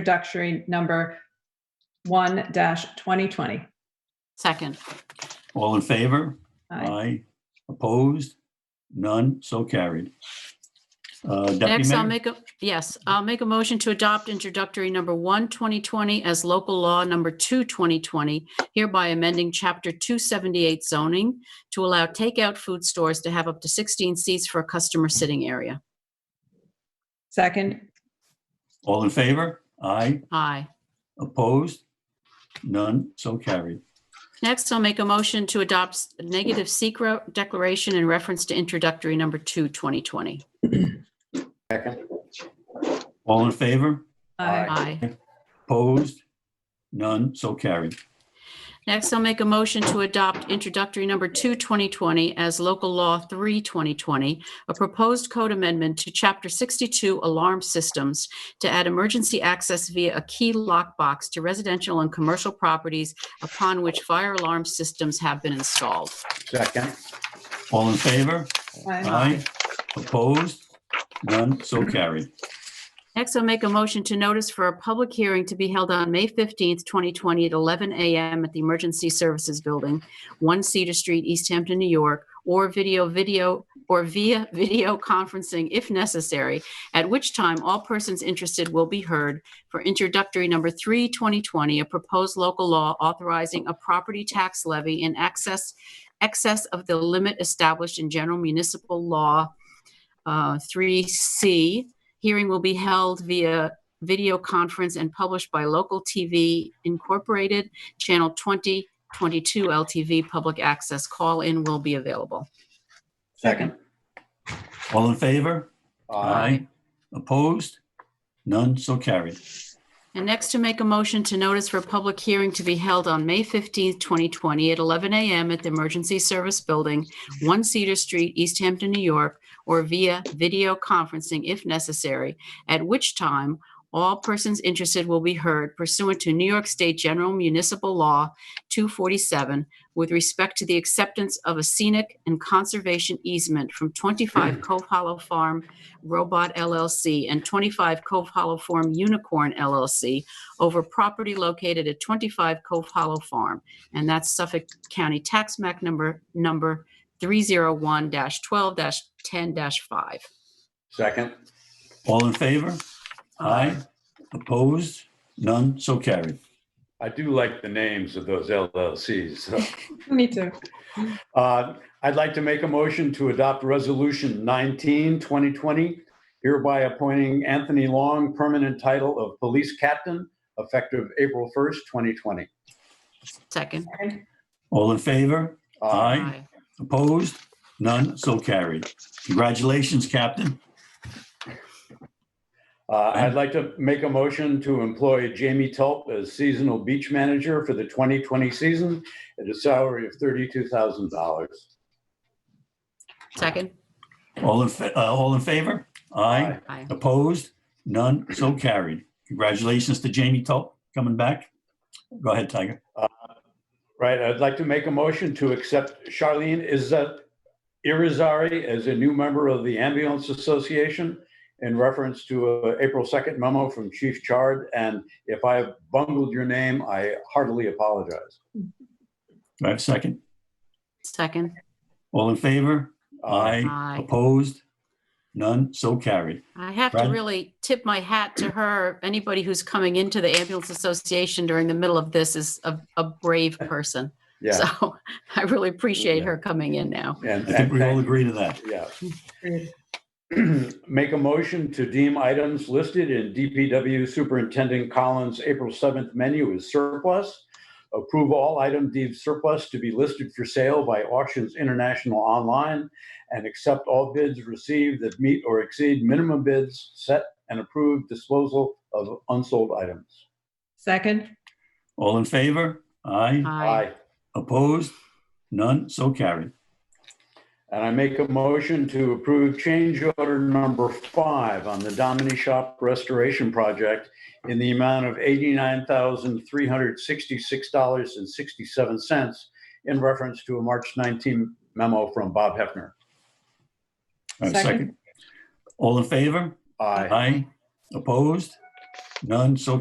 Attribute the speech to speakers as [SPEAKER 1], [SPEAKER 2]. [SPEAKER 1] introductory number 1-2020.
[SPEAKER 2] Second,
[SPEAKER 3] All in favor?
[SPEAKER 1] Aye.
[SPEAKER 3] Opposed? None, so carried. Uh, Deputy
[SPEAKER 2] next I'll
[SPEAKER 3] Mayor,
[SPEAKER 2] make a, yes, I'll make a motion to adopt introductory number one, 2020 as local law number two, 2020, hereby amending chapter 278 zoning to allow takeout food stores to have up to 16 seats for a customer sitting area.
[SPEAKER 1] Second,
[SPEAKER 3] all in favor? Aye.
[SPEAKER 2] Aye.
[SPEAKER 3] Opposed? None, so carried.
[SPEAKER 2] Next, I'll make a motion to adopt negative secret declaration in reference to introductory number two, 2020.
[SPEAKER 4] Second,
[SPEAKER 3] All in favor?
[SPEAKER 1] aye.
[SPEAKER 2] Aye.
[SPEAKER 3] Opposed? None, so carried.
[SPEAKER 2] Next, I'll make a motion to adopt introductory number two, 2020, as local law three, 2020, a proposed code amendment to chapter 62 alarm systems to add emergency access via a key lockbox to residential and commercial properties upon which fire alarm systems have been installed.
[SPEAKER 4] second,
[SPEAKER 3] All in favor?
[SPEAKER 1] Aye.
[SPEAKER 3] Aye. Opposed? None, so carried.
[SPEAKER 2] Next, I'll make a motion to notice for a public hearing to be held on May 15th, 2020 at 11 a.m. at the Emergency Services Building, 1 Cedar Street, East Hampton, New York, or video, video, or via video conferencing if necessary, at which time all persons interested will be heard for introductory number 3, 2020, a proposed local law authorizing a property tax levy in excess, excess of the limit established in General Municipal Law uh, 3C, Hearing will be held via video conference and published by Local TV Incorporated, Channel 20, 22 LTV Public Access. Call-in will be available.
[SPEAKER 4] second.
[SPEAKER 3] All in favor?
[SPEAKER 4] Aye.
[SPEAKER 3] Opposed? None, so carried.
[SPEAKER 2] And next to make a motion to notice for a public hearing to be held on May 15th, 2020 at 11 a.m. at the Emergency Service Building, 1 Cedar Street, East Hampton, New York, or via video conferencing if necessary, at which time all persons interested will be heard pursuant to New York State General Municipal Law 247 with respect to the acceptance of a scenic and conservation easement from 25 Cove Hollow Farm Robot LLC and 25 Cove Hollow Farm Unicorn LLC over property located at 25 Cove Hollow Farm. And that's Suffolk County Tax Map number, number 301-12-10-5.
[SPEAKER 4] Second,
[SPEAKER 3] All in favor? Aye. Opposed? None, so carried.
[SPEAKER 5] I do like the names of those LLCs. so.
[SPEAKER 1] Me too.
[SPEAKER 5] Uh, I'd like to make a motion to adopt Resolution 19, 2020, hereby appointing Anthony Long permanent title of Police Captain effective April 1st, 2020.
[SPEAKER 2] Second.
[SPEAKER 3] All in favor?
[SPEAKER 5] Uh,
[SPEAKER 3] Aye. Opposed? None, so carried. Congratulations, Captain.
[SPEAKER 5] uh, I'd like to make a motion to employ Jamie Tulp as seasonal beach manager for the 2020 season at a salary of $32,000.
[SPEAKER 2] Second.
[SPEAKER 3] All in, fa- uh, all in favor? Aye.
[SPEAKER 2] Aye.
[SPEAKER 3] Opposed? None, so carried. Congratulations to Jamie Tulp coming back. Go ahead, Tiger.
[SPEAKER 5] Right, I'd like to make a motion to accept Charlene Izza Irizarry as a new member of the Ambulance Association in reference to a April 2nd memo from Chief Chard. And if I have bungled your name, I heartily apologize.
[SPEAKER 3] Do I have a second?
[SPEAKER 2] Second.
[SPEAKER 3] All in favor?
[SPEAKER 5] Uh,
[SPEAKER 3] Aye.
[SPEAKER 2] Aye.
[SPEAKER 3] Opposed? None, so carried.
[SPEAKER 2] I have to
[SPEAKER 3] Brad?
[SPEAKER 2] really tip my hat to her. Anybody who's coming into the Ambulance Association during the middle of this is a, a brave person.
[SPEAKER 5] Yeah,
[SPEAKER 2] So I really appreciate
[SPEAKER 5] Yeah.
[SPEAKER 2] her coming in now.
[SPEAKER 5] and,
[SPEAKER 3] I think
[SPEAKER 5] and
[SPEAKER 3] we all
[SPEAKER 5] thank-
[SPEAKER 3] agree to that.
[SPEAKER 5] yeah. Make a motion to deem items listed in DPW Superintendent Collins' April 7th menu as surplus. Approve all item deemed surplus to be listed for sale by Auctions International Online and accept all bids received that meet or exceed minimum bids set and approve disposal of unsold items.
[SPEAKER 1] Second,
[SPEAKER 3] All in favor? Aye.
[SPEAKER 2] Aye.
[SPEAKER 3] Opposed? None, so carried.
[SPEAKER 5] And I make a motion to approve change order number five on the Domini Shop Restoration Project in the amount of $89,366.67 in reference to a March 19 memo from Bob Hefner.
[SPEAKER 3] Do I have a
[SPEAKER 1] Second.
[SPEAKER 3] second? All in favor?
[SPEAKER 5] Aye.
[SPEAKER 3] Aye. Opposed? None, so